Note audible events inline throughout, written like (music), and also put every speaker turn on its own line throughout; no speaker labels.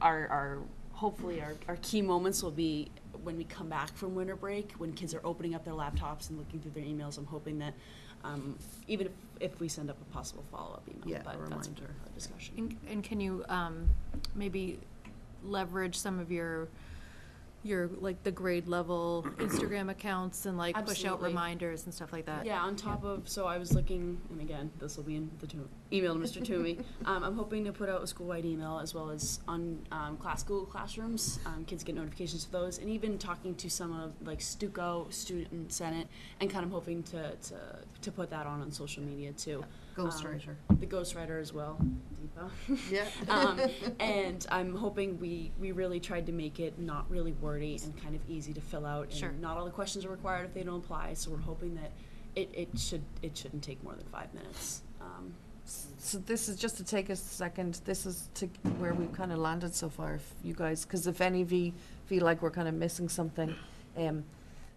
our, our hopefully our, our key moments will be when we come back from winter break, when kids are opening up their laptops and looking through their emails. I'm hoping that um, even if, if we send up a possible follow up email,
Yeah, a
but that's a
reminder.
discussion.
And, and can you, um, maybe leverage some of your, your, like, the grade level Instagram accounts and like push out
Absolutely.
reminders and stuff like that?
Yeah, on top of, so I was looking, and again, this will be in the to- email to Mr. Toomey. Um, I'm hoping to put out a school-wide email as well as on, um, class, Google Classrooms. Um, kids get notifications for those, and even talking to some of, like, Stuco, Student Senate, and kind of hoping to, to, to put that on on social media too.
Ghostwriter.
The ghostwriter as well, Deepa
Yeah.
um, and I'm hoping we, we really tried to make it not really wordy and kind of easy to fill out. And
Sure.
Not all the questions are required if they don't apply, so we're hoping that it, it should it shouldn't take more than five minutes. Um,
So this is just to take a second, this is to where we've kind of landed so far, if you guys, because if any of you feel like we're kind of missing something, um,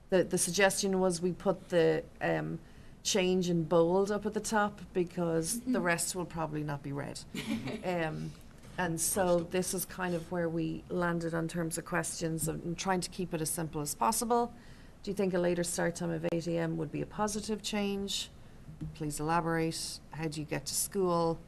the, the suggestion was we put the, um, change in bold up at the top because the rest will probably not be read. Um, and so this is kind of where we landed on terms of questions of- and trying to keep it as simple as possible. Do you think a later start time of eight AM would be a positive change? Please elaborate. How do you get to school?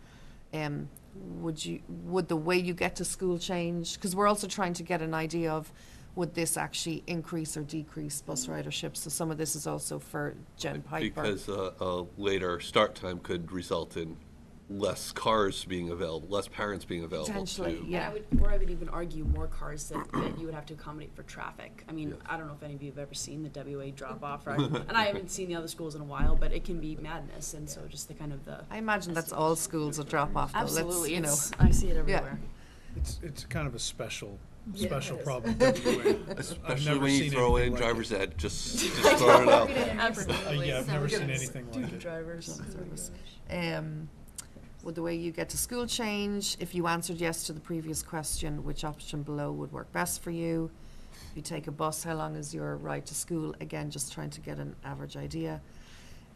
Um, would you, would the way you get to school change? Because we're also trying to get an idea of, would this actually increase or decrease bus ridership? So some of this is also for Jen Piper.
Because uh, a later start time could result in less cars being available, less parents being available to.
Potentially, yeah.
And I would, or I would even argue more cars that, that you would have to accommodate for traffic. I mean, I don't know if any of you have ever seen the WA drop off, right? and I haven't seen the other schools in a while, but it can be madness. And so just the kind of the
I imagine that's all schools will drop off though. Let's,
absolutely,
you know.
it's- I see it everywhere.
It's, it's kind of a special,
Yeah,
special
it is.
(laughs)
problem.
(laughs)
WA. I've
Especially
never
when you
seen
throw in
anything like it.
driver's ed, just, just throw it out.
Uh, Yeah, (laughs) I've never seen anything like it.
Drivers.
Um, would the way you get to school change? If you answered yes to the previous question, which option below would work best for you? If you take a bus, how long is your ride to school? Again, just trying to get an average idea.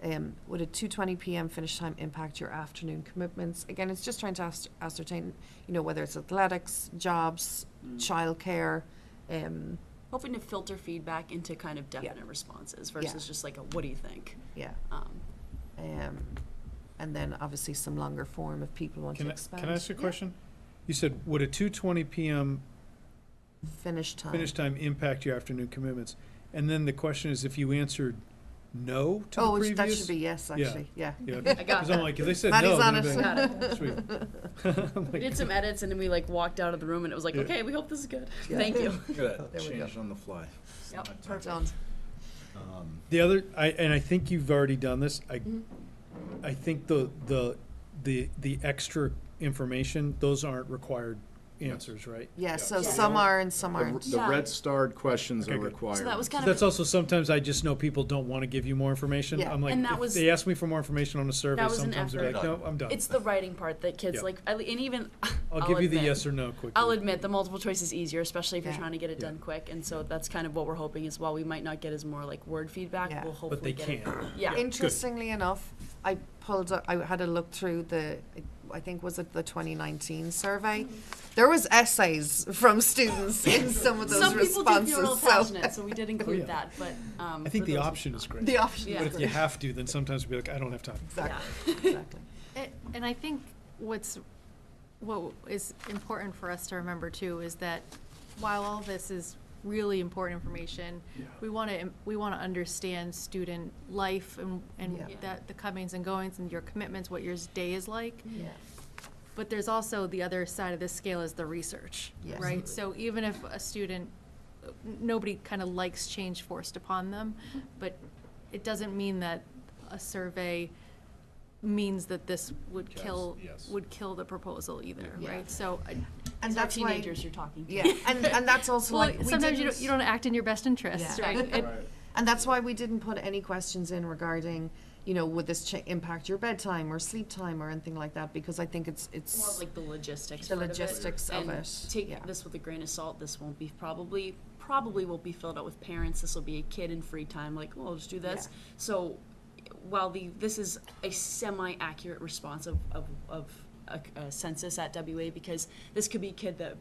Um, would a two twenty PM finish time impact your afternoon commitments? Again, it's just trying to ast- ascertain, you know, whether it's athletics, jobs, childcare, um,
hoping to filter feedback into kind of definite responses versus just like a what do you think
yeah.
(laughs) um,
Um, and then obviously some longer form if people want
Can
to
I,
expand.
can I ask you a question? You said, would a two twenty PM
Finish time.
finish time impact your afternoon commitments? And then the question is, if you answered no to the
oh, it's-
previous?
that should be yes, actually. Yeah. (laughs)
Yeah,
got
because I'm like, if they said
Maddie's
no, then
on
I'd be
it.
like, "Oh,
we
sweet.
(laughs)
(laughs) I'm like,
did some edits and then we like walked out of the room and it was like
Yeah.
okay we hope this is good
Yeah.
thank you
Look
Oh,
at
There
that,
we go.
changed on the fly.
Yep,
Not time.
perfect.
Done.
Um,
The other, I, and I think you've already done this, I,
Mm-hmm.
I think the, the, the, the extra information, those aren't required answers, right?
Yeah, so
Yeah.
some are and some
The r-
aren't.
The
Yeah.
red starred questions
Okay,
are
good.
required.
so that was kind
That's
of
also, sometimes I just know people don't want to give you more information.
Yeah.
I'm like,
And that
if
was-
they ask me for more information on a survey,
was an
sometimes they're like,
effort.
no, I'm done.
it's the writing part that kids
Yeah.
like I- and even (laughs)
I'll give you the
admit-
yes or no quickly.
I'll admit the multiple choice is easier, especially if you're
Yeah.
trying to get it done quick, and so that's kind of what we're hoping is while we might not get as more like word feedback,
Yeah.
we'll
But
hopefully
But they
get
can.
it. Yeah,
Interestingly enough, I pulled, up- I had a look through the, I think was it the 2019 survey?
Mm-hmm.
There was essays from students
(laughs)
in some of those
some people do feel real
responses, so.
passionate, so we did
(laughs)
include that. But um,
I think
for
the
those-
option is great.
The option
Yeah.
But
is
if you
great.
have to, then sometimes we'll be like, I don't have time.
Yeah. (laughs)
Exactly, exactly.
A- And I think what's, what is important for us to remember too is that while all this is really important information, we want to, we want to understand student life and, and
Yeah.
that, the comings and goings and your commitments, what your day is like.
Yeah.
But there's also the other side of this scale is the research,
Yes.
right? So even if a student, uh, n- nobody kind of likes change forced upon them,
Mm-hmm.
but it doesn't mean that a survey means that this would
Yes,
kill,
yes.
would kill the proposal either,
Yeah.
right? So, uh, I-
And
These are
that's why,
teenagers you're talking to. (laughs)
yeah, and, and that's also
well,
like, we
sometimes you
didn't-
don't, you don't act in your best interests,
Yeah.
right? It-
And that's why we didn't put any questions in regarding, you know, would this cha- impact your bedtime or sleep time or anything like that, because I think it's,
More of
it's,
like the logistics.
The
part of it,
logistics of
and
it,
Take
yeah.
this with a grain of salt. This won't be probably probably won't be filled out with parents. This will be a kid in free time. Like, well, I'll just do this.
Yeah.
So, while the this is a semi-accurate response of of, of a, a census at WA because this could be a kid that